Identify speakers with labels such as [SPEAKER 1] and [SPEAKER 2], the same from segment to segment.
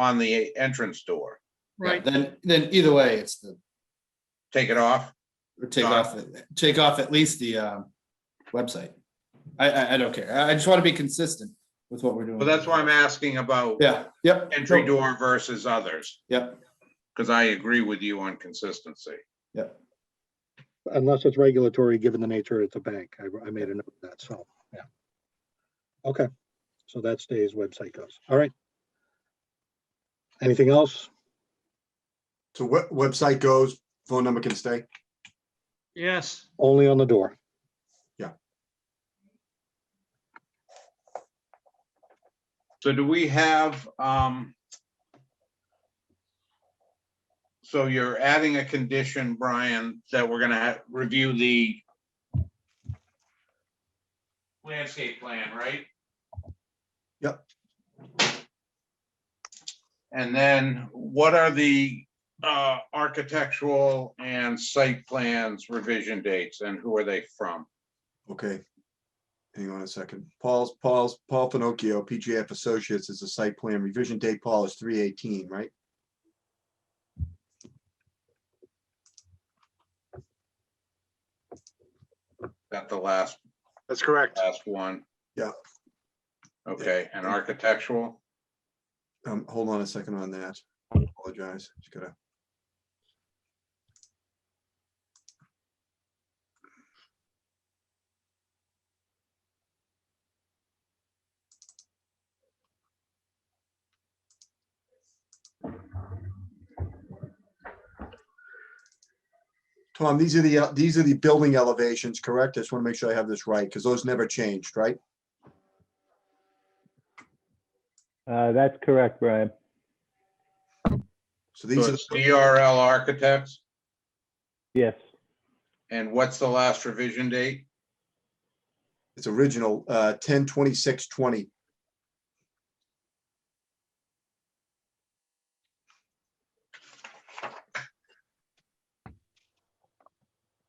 [SPEAKER 1] on the entrance door.
[SPEAKER 2] Yeah,
[SPEAKER 3] Right,
[SPEAKER 2] Then, then either way, it's the,
[SPEAKER 1] Take it off.
[SPEAKER 2] or take off, the- take off at least the, um, website. I, I, I don't care. I, I just want to be consistent with what we're doing.
[SPEAKER 1] Well, that's why I'm asking about
[SPEAKER 2] Yeah, yep.
[SPEAKER 1] entry
[SPEAKER 2] no,
[SPEAKER 1] door versus others,
[SPEAKER 2] Yep,
[SPEAKER 1] because I agree with you on consistency.
[SPEAKER 2] yep.
[SPEAKER 4] unless it's regulatory, given the nature it's a bank. I, I made a note of that, so, yeah. Okay, so that stays website goes. All right. Anything else?
[SPEAKER 5] So we- website goes, phone number can stay.
[SPEAKER 3] yes,
[SPEAKER 4] Only on the door.
[SPEAKER 1] So do we have, um, so you're adding a condition, Brian, that we're gonna ha- review the landscape plan, right?
[SPEAKER 5] Yep.
[SPEAKER 1] And then what are the, uh, architectural and site plans revision dates and who are they from?
[SPEAKER 5] Okay. Hang on a second. Paul's, Paul's, Paul Finocchio, PGF Associates is a site plan revision date. Paul is three eighteen, right?
[SPEAKER 1] Got the last
[SPEAKER 6] That's correct.
[SPEAKER 1] Last one.
[SPEAKER 5] Yeah.
[SPEAKER 1] Okay, and architectural,
[SPEAKER 5] Um, hold on a second on that. I Apologize. Just gotta. Tom, these are the, uh, these are the building elevations, correct? I just want to make sure I have this right, because those never changed, right?
[SPEAKER 7] Uh, that's correct, Brian.
[SPEAKER 5] So
[SPEAKER 1] so
[SPEAKER 5] these are,
[SPEAKER 1] it's DRL Architects,
[SPEAKER 7] Yes,
[SPEAKER 1] and what's the last revision date?
[SPEAKER 5] it's original, uh, ten twenty-six twenty.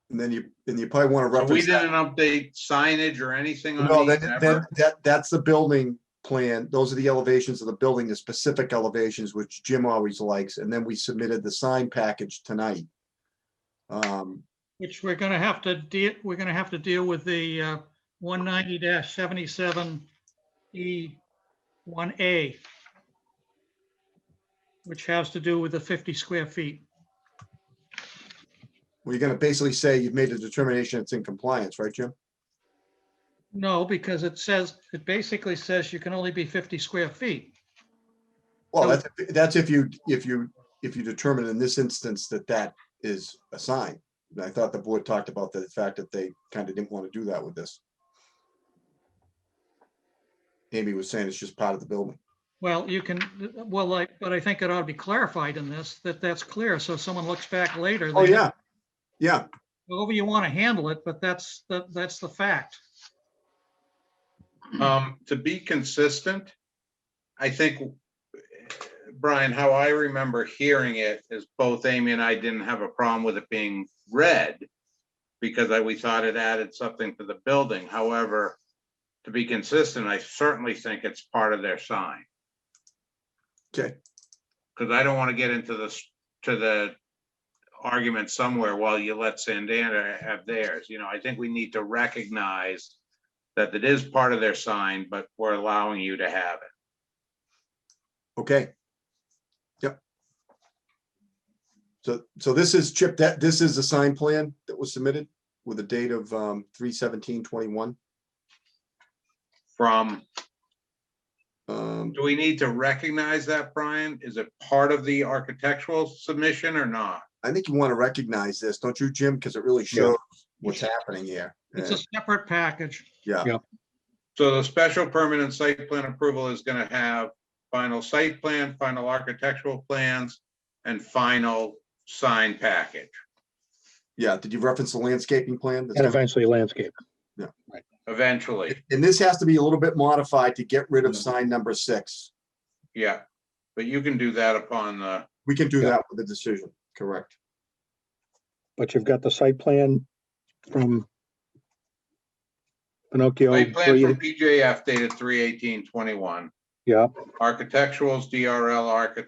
[SPEAKER 5] And then you, and you probably want to
[SPEAKER 1] So we
[SPEAKER 5] reference. that.
[SPEAKER 1] didn't update signage or anything
[SPEAKER 5] No,
[SPEAKER 1] on
[SPEAKER 5] that,
[SPEAKER 1] these
[SPEAKER 5] that,
[SPEAKER 1] ever?
[SPEAKER 5] that, that's the building plan. Those are the elevations of the building, the specific elevations, which Jim always likes. And then we submitted the sign package tonight. Um,
[SPEAKER 3] which we're gonna have to deal, we're gonna have to deal with the uh, 190-77 E E1A, which has to do with the 50 square feet.
[SPEAKER 5] we're gonna basically say you've made a determination it's in compliance, right, Jim?
[SPEAKER 3] No, because it says, it basically says you can only be 50 square feet.
[SPEAKER 5] Well,
[SPEAKER 3] So-
[SPEAKER 5] that's, that's if you, if you, if you determine in this instance that that is a sign. And I thought the board talked about the fact that they kind of didn't want to do that with this. Amy was saying it's just part of the building.
[SPEAKER 3] Well, you can, well, like, but I think it ought to be clarified in this, that that's clear, so if someone looks back later.
[SPEAKER 5] Oh,
[SPEAKER 3] they-
[SPEAKER 5] yeah. Yeah,
[SPEAKER 3] However you want to handle it, but that's, the that's the fact.
[SPEAKER 1] Um, to be consistent, I think, uh, Brian, how I remember hearing it is both Amy and I didn't have a problem with it being red because I, we thought it added something to the building. However, to be consistent, I certainly think it's part of their sign.
[SPEAKER 5] okay.
[SPEAKER 1] because I don't want to get into this, to the argument somewhere while you let Sandana have theirs. You know, I think we need to recognize that it is part of their sign, but we're allowing you to have it.
[SPEAKER 5] Okay. Yep. So, so this is Chip, that, this is the sign plan that was submitted with a date of um three seventeen twenty-one.
[SPEAKER 1] From,
[SPEAKER 5] Um,
[SPEAKER 1] do we need to recognize that, Brian? Is it part of the architectural submission or not?
[SPEAKER 5] I think you want to recognize this, don't you, Jim? Because it really shows what's happening here.
[SPEAKER 3] It's
[SPEAKER 5] Yeah.
[SPEAKER 3] a separate package.
[SPEAKER 5] Yeah,
[SPEAKER 1] So the special permanent site plan approval is going to have final site plan, final architectural plans, and final sign package.
[SPEAKER 5] yeah. Did you reference the landscaping plan? That's
[SPEAKER 4] And
[SPEAKER 5] coming?
[SPEAKER 4] eventually landscape.
[SPEAKER 1] Eventually,
[SPEAKER 5] And this has to be a little bit modified to get rid of sign number six.
[SPEAKER 1] yeah. But you can do that upon the
[SPEAKER 5] We can do
[SPEAKER 4] Yeah.
[SPEAKER 5] that with the decision, correct?
[SPEAKER 4] But you've got the site plan from Pinocchio.
[SPEAKER 1] Site plan
[SPEAKER 4] three-
[SPEAKER 1] from PJF dated three eighteen twenty-one,
[SPEAKER 4] Yep.
[SPEAKER 1] Architectural's DRL architect.